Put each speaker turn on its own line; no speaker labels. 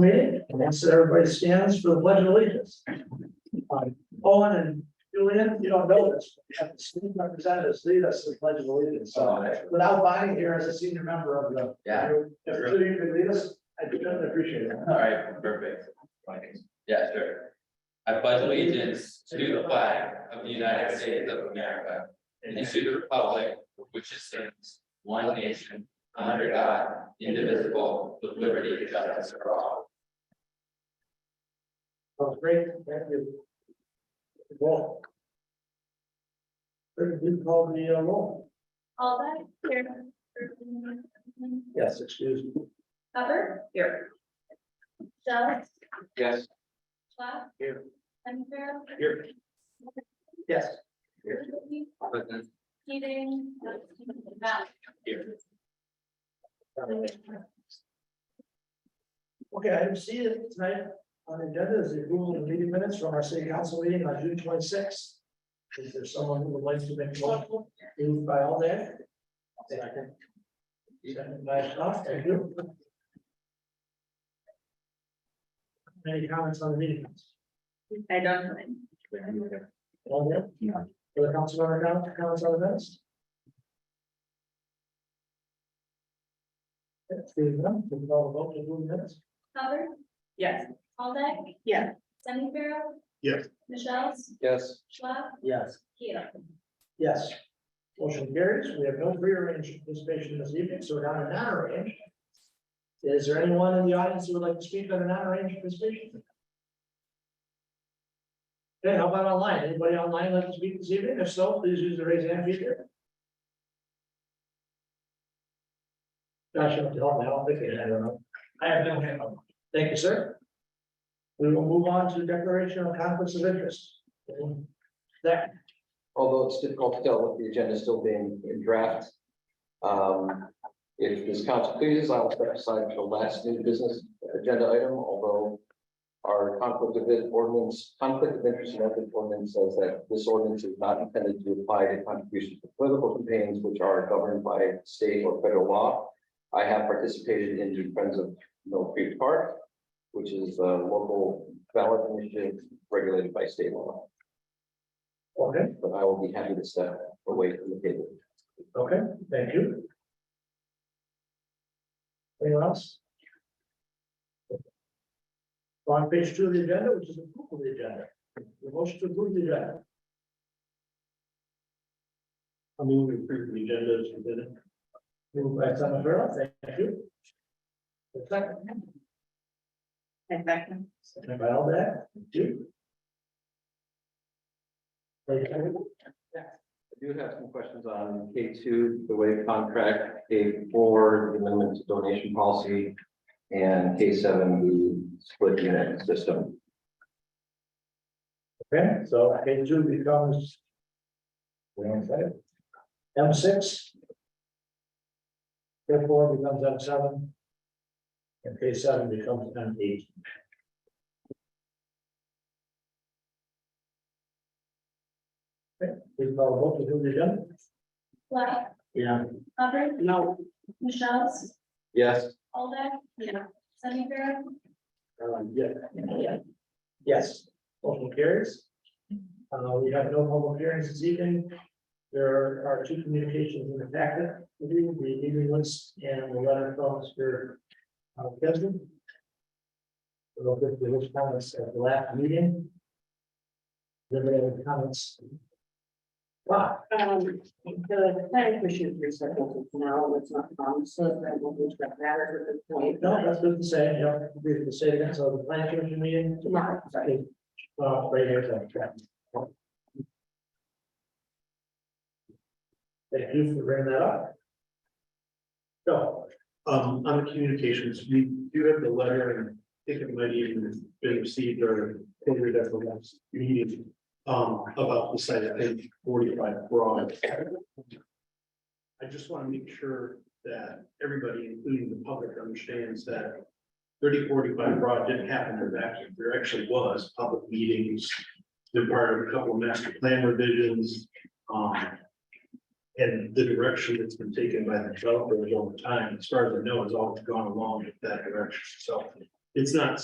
meeting, and that's that everybody stands for the pledge of allegiance. Uh, Owen and Julian, you don't know this, but you have the student representatives lead us to the pledge of allegiance, so without buying here as a senior member of the.
Yeah.
If you could lead us, I do appreciate it.
All right, perfect. Yeah, sure. I pledge allegiance to the flag of the United States of America and to the republic for which it stands, one nation, under God, indivisible, with liberty and justice for all.
That was great, thank you. Well. You called me a roll.
All that here.
Yes, excuse me.
Cover. Here. Doug.
Yes.
Schlaf.
Here.
Hunter.
Here. Yes. Here.
Keating.
Here.
Okay, item C is tonight on the agenda is the approval of meeting minutes from our city council meeting on June twenty sixth. Is there someone who would like to make a motion? Moved by all day? Second. Second by Schlaf, thank you. Any comments on the meeting? minutes?
I don't know.
All there?
Yeah.
Other council member now, comments on the minutes? That's the, one, we can all vote to move minutes.
Cover.
Yes.
All that.
Yeah.
Sunny Pharaoh.
Yes.
Michelle.
Yes.
Schlaf.
Yes.
Keating.
Yes. Motion carries. We have no prearranged participation this evening, so we're down to non-arranged. Is there anyone in the audience who would like to speak on a non-arranged participation? Okay, how about online? Anybody online like to speak this evening? If so, please use the raise hand feature. Josh, you have to help me. I don't think they had one. I have no hand up. Thank you, sir. We will move on to declaration of conflicts of interest. That
although it's difficult to tell with the agenda still being in draft. Um, if this council pleases, I will step aside for the last new business agenda item, although. Our conflict of it- ordinance, conflict of interest and ethics ordinance says that this ordinance is not intended to apply to contributions to political campaigns which are governed by state or federal law. I have participated in the Friends of Mill Creek Park, which is a local ballot initiative regulated by state law.
Okay,
But I will be happy to step away from the table.
okay, thank you. Anyone else? On page two of the agenda, which is approval of the agenda, the motion to approve the agenda. I'm moving through the agenda as you did it. Moved by Senator Farrell, thank you. The Second,
And second.
second by all that, do.
I do have some questions on K two, the wave contract, K four, the amendment to donation policy, and K seven, the split unit system.
Okay, so page two becomes. We don't say it. M six. Therefore becomes M seven. And K seven becomes M eight. Okay, we call vote to do the agenda.
Schlaf.
Yeah.
Cover.
No.
Michelle.
Yes.
All that.
Yeah.
Sunny Pharaoh.
Um, yeah, yeah. Yes, motion carries. Uh, we have no public hearings this evening. There are two communications in the packet, the meeting list and the letter from Mr. uh, Keston. We'll get to those comments at the last meeting. Then we have comments. Wow,
Um, the planning commission recycles now, it's not promises, I won't be that matters at this point.
no, that's good to say, you know, we have to say that, so the plan commission meeting.
Tomorrow, sorry.
Uh, right here, that's right. Thank you for bringing that up. So,
Um, on the communications, we do have the letter, and I think it might even have been received or ordered at the last meeting. Um, about the site, I think forty-five broad. I just want to make sure that everybody, including the public, understands that. Thirty forty-five broad didn't happen in a vacuum, there actually was public meetings. There were a couple of master plan revisions, um, and the direction that's been taken by the developers over time, as far as I know, has always gone along with that direction, so.
It's not